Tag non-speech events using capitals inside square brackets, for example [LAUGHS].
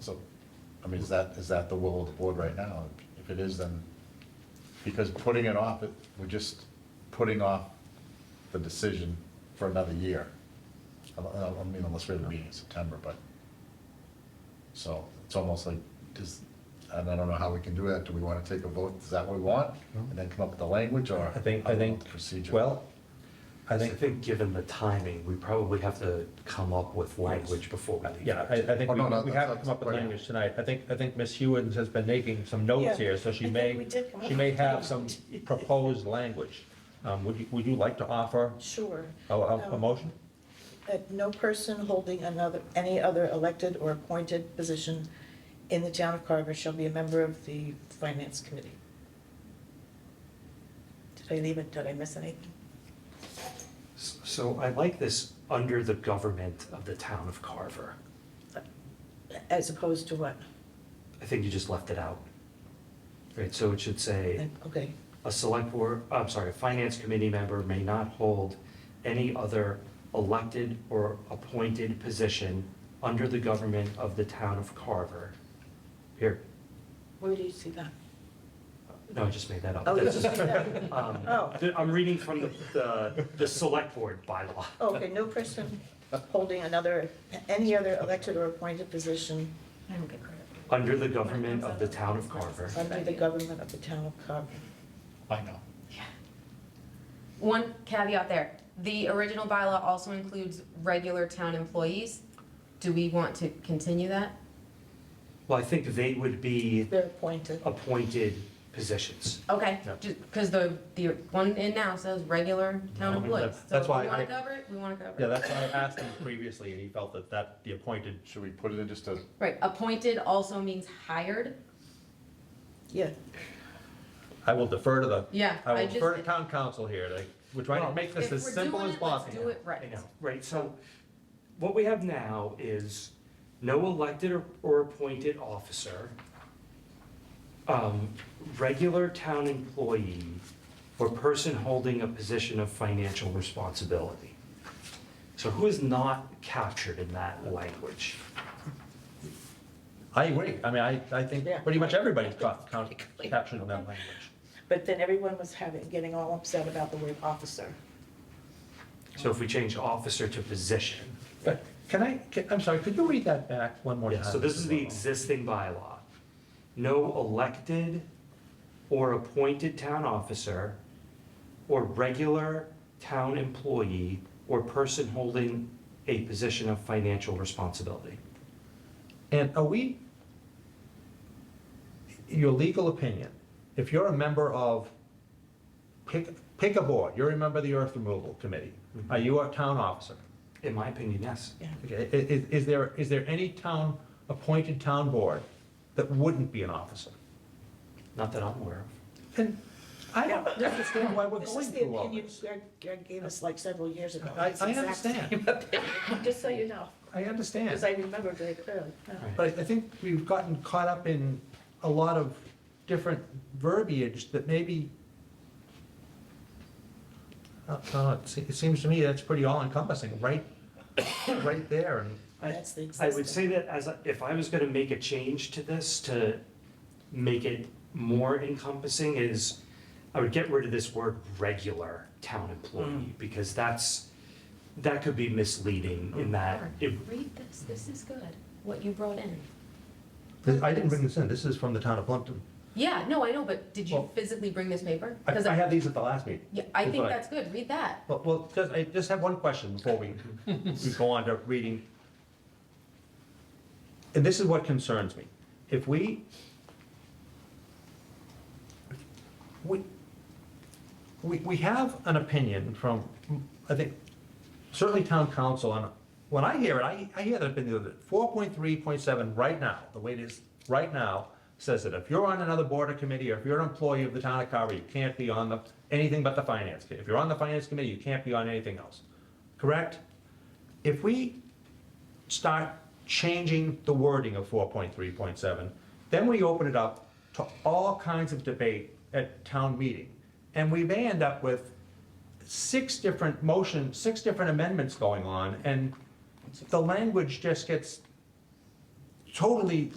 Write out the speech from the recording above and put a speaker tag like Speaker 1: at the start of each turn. Speaker 1: So, I mean, is that, is that the will of the board right now? If it is, then, because putting it off, it- we're just putting off the decision for another year. I don't- I don't- I mean, unless we have a meeting in September, but, so it's almost like, does, and I don't know how we can do that. Do we want to take a vote? Is that what we want? And then come up with the language or?
Speaker 2: I think,
Speaker 1: don't
Speaker 2: I
Speaker 1: know
Speaker 2: think,
Speaker 1: the Procedure.
Speaker 2: well, I
Speaker 3: I
Speaker 2: think,
Speaker 3: think, given the timing, we probably have to come up with language before we leave.
Speaker 2: yeah, I, I think
Speaker 1: Oh,
Speaker 2: we
Speaker 1: no, no,
Speaker 2: we have to
Speaker 1: that's-
Speaker 2: come up with
Speaker 1: right.
Speaker 2: language tonight. I think, I think Ms. Hewens has been making some notes
Speaker 4: Yeah,
Speaker 2: here, so she
Speaker 4: I think we
Speaker 2: may,
Speaker 4: did come up
Speaker 2: she may
Speaker 4: with
Speaker 2: have some
Speaker 4: language.
Speaker 2: proposed language. Um, would you, would you like to offer
Speaker 4: Sure.
Speaker 2: a, a, a
Speaker 4: Um,
Speaker 2: motion?
Speaker 4: That no person holding another, any other elected or appointed position in the town of Carver shall be a member of the finance committee. Did I leave it, did I miss anything?
Speaker 3: So I like this under the government of the town of Carver.
Speaker 4: Uh, As opposed to what?
Speaker 3: I think you just left it out. Right, so it should say,
Speaker 4: Okay,
Speaker 3: a select board, I'm sorry, a finance committee member may not hold any other elected or appointed position under the government of the town of Carver. Here,
Speaker 4: where do you see that?
Speaker 3: no, I just made that up.
Speaker 4: Oh, you
Speaker 3: That's-
Speaker 4: see
Speaker 3: [LAUGHS]
Speaker 4: that?
Speaker 3: Um,
Speaker 4: Oh.
Speaker 3: th- I'm reading from the, the, the select board bylaw.
Speaker 4: Oh, Okay, no person holding another, any other elected or appointed position
Speaker 5: I don't get credit.
Speaker 3: Under the government of the town of Carver.
Speaker 4: under the government of the town of Carver.
Speaker 1: I know.
Speaker 5: One caveat there, the original bylaw also includes regular town employees. Do we want to continue that?
Speaker 3: Well, I think they would be
Speaker 4: They're appointed.
Speaker 3: appointed positions.
Speaker 5: Okay,
Speaker 3: No.
Speaker 5: because the, the one in now says regular town
Speaker 2: No,
Speaker 5: employees.
Speaker 2: that's-
Speaker 5: So
Speaker 2: that's
Speaker 5: if
Speaker 2: why
Speaker 5: we
Speaker 2: I-
Speaker 5: want to cover it, we want to cover
Speaker 2: [LAUGHS]
Speaker 5: it.
Speaker 2: Yeah, that's why I asked him previously, and he felt that that, the appointed,
Speaker 1: Should we put it in just a,
Speaker 5: Right, appointed also means hired.
Speaker 4: Yeah,
Speaker 2: I will defer to the,
Speaker 5: Yeah,
Speaker 2: I
Speaker 5: I
Speaker 2: will
Speaker 5: just.
Speaker 2: defer to town council here, like, we're trying to
Speaker 3: Well,
Speaker 2: make this
Speaker 5: if
Speaker 2: as
Speaker 5: we're
Speaker 2: simple
Speaker 5: doing
Speaker 2: as
Speaker 5: it, let's Do
Speaker 2: possible.
Speaker 5: it
Speaker 3: I
Speaker 5: right.
Speaker 3: know, right, so what we have now is no elected or, or appointed officer, um, regular town employee, or person holding a position of financial responsibility. So who is not captured in that language?
Speaker 2: I agree, I mean, I, I think
Speaker 4: Yeah.
Speaker 2: pretty much everybody's got, count- captured in that language.
Speaker 4: but then everyone was having, getting all upset about the word officer.
Speaker 3: So if we change officer to position,
Speaker 2: But can I, can- I'm sorry, could you read that back one more
Speaker 3: Yeah,
Speaker 2: time?
Speaker 3: so this is the
Speaker 2: Mr. Lovell?
Speaker 3: existing bylaw. No elected or appointed town officer or regular town employee or person holding a position of financial responsibility.
Speaker 2: And are we, your legal opinion, if you're a member of, pick, pick a board, you're a member of the earth removal committee,
Speaker 3: Mm-hmm.
Speaker 2: are you a town officer?
Speaker 3: In my opinion, yes.
Speaker 2: Okay, i- is, is there, is there any town, appointed town board that wouldn't be an officer?
Speaker 3: Not that I'm aware of.
Speaker 2: And I don't understand why we're
Speaker 4: This
Speaker 2: going
Speaker 4: is the
Speaker 2: through all
Speaker 4: opinion
Speaker 2: this.
Speaker 4: Greg, Greg gave us like several years ago.
Speaker 2: I,
Speaker 4: It's
Speaker 2: I
Speaker 4: exact
Speaker 2: understand,
Speaker 4: same [LAUGHS] opinion, Just so you know,
Speaker 2: I understand.
Speaker 4: because I remember very clearly.
Speaker 3: Right.
Speaker 2: But I think we've gotten caught up in a lot of different verbiage that maybe, I don't know, it se- it seems to me that's pretty all encompassing, right, [COUGHS] right there, and
Speaker 3: I-
Speaker 4: That's the
Speaker 3: I would
Speaker 4: existing.
Speaker 3: say that as, a- if I was gonna make a change to this to make it more encompassing is, I would get rid of this word regular town employee, because that's, that could be misleading in that it,
Speaker 5: Read this, this is good, what you brought in.
Speaker 2: th- I didn't bring this in, this is from the town of Plumpton.
Speaker 5: Yeah, no, I know, but did you
Speaker 2: Well-
Speaker 5: physically bring this paper?
Speaker 2: I,
Speaker 5: 'Cause
Speaker 2: I had these at the last meeting.
Speaker 5: Yeah, I
Speaker 2: That's
Speaker 5: think
Speaker 2: what I-
Speaker 5: that's good, read that.
Speaker 2: Well, well, just, I just have one question before we, we go on to reading. And this is what concerns me. If we, we, we, we have an opinion from, I think, certainly town council, and when I hear it, I, I hear that opinion that four point three point seven right now, the way it is right now, says that if you're on another board or committee, or if you're an employee of the town of Carver, you can't be on the, anything but the finance. committee. If you're on the finance committee, you can't be on anything else, correct? If we start changing the wording of four point three point seven, then we open it up to all kinds of debate at town meeting. And we may end up with six different motions, six different amendments going on, and the language just gets totally